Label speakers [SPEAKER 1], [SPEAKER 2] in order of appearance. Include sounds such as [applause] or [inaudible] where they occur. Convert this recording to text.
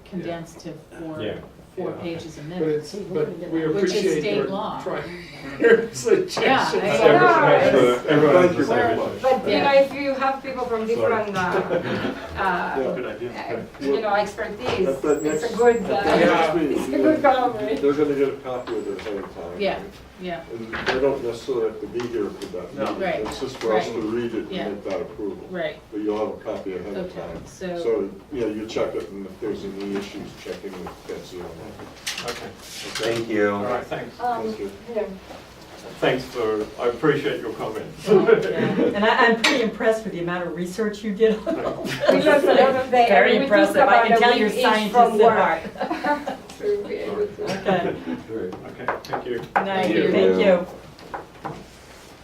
[SPEAKER 1] condensed to
[SPEAKER 2] Yeah.
[SPEAKER 1] four, four
[SPEAKER 3] Yeah.
[SPEAKER 1] pages a
[SPEAKER 3] But
[SPEAKER 1] minute.
[SPEAKER 3] it's, but we
[SPEAKER 1] Which is
[SPEAKER 3] appreciate
[SPEAKER 1] state
[SPEAKER 3] your
[SPEAKER 1] law.
[SPEAKER 3] trying, [laughs] your suggestions.
[SPEAKER 1] I-
[SPEAKER 2] Every- make sure that everyone
[SPEAKER 4] Right.
[SPEAKER 2] understands.
[SPEAKER 4] But you know,
[SPEAKER 1] Yeah.
[SPEAKER 4] if you have people from different, uh, uh,
[SPEAKER 5] Good idea.
[SPEAKER 4] you know, expertise,
[SPEAKER 6] At the
[SPEAKER 4] it's
[SPEAKER 6] next-
[SPEAKER 4] a good,
[SPEAKER 6] At the
[SPEAKER 4] uh,
[SPEAKER 6] next meeting,
[SPEAKER 4] it's a good collaboration.
[SPEAKER 6] They're gonna get a copy of it ahead of time.
[SPEAKER 1] Yeah. Yeah,
[SPEAKER 6] And they don't necessarily have to be here for that
[SPEAKER 5] No.
[SPEAKER 6] meeting.
[SPEAKER 1] Right,
[SPEAKER 6] It's just for us
[SPEAKER 1] right.
[SPEAKER 6] to read it and
[SPEAKER 1] Yeah.
[SPEAKER 6] make that approval.
[SPEAKER 1] right,
[SPEAKER 6] But you'll have a copy ahead of
[SPEAKER 1] Okay,
[SPEAKER 6] time.
[SPEAKER 1] so-
[SPEAKER 6] So, you know, you check it, and if there's any issues, check in with Betsy on that.
[SPEAKER 5] Okay,
[SPEAKER 6] Okay?
[SPEAKER 2] Thank you.
[SPEAKER 5] all right, thanks.
[SPEAKER 4] Um,
[SPEAKER 6] Thank you.
[SPEAKER 4] yeah.
[SPEAKER 5] Thanks for, I appreciate your comments. [laughs]
[SPEAKER 7] And I, I'm pretty impressed with the amount of research you did on all this.
[SPEAKER 4] We learned a lot of day, and
[SPEAKER 7] Very
[SPEAKER 4] we took
[SPEAKER 7] impressive,
[SPEAKER 4] about
[SPEAKER 7] I
[SPEAKER 4] a
[SPEAKER 7] can tell
[SPEAKER 4] week
[SPEAKER 7] you're
[SPEAKER 4] each
[SPEAKER 7] scientists
[SPEAKER 4] from
[SPEAKER 7] at
[SPEAKER 4] work.
[SPEAKER 7] heart.
[SPEAKER 4] To be able to-
[SPEAKER 7] Okay,
[SPEAKER 6] Great.
[SPEAKER 5] Okay, thank you.
[SPEAKER 7] nice,
[SPEAKER 6] you.
[SPEAKER 7] thank you.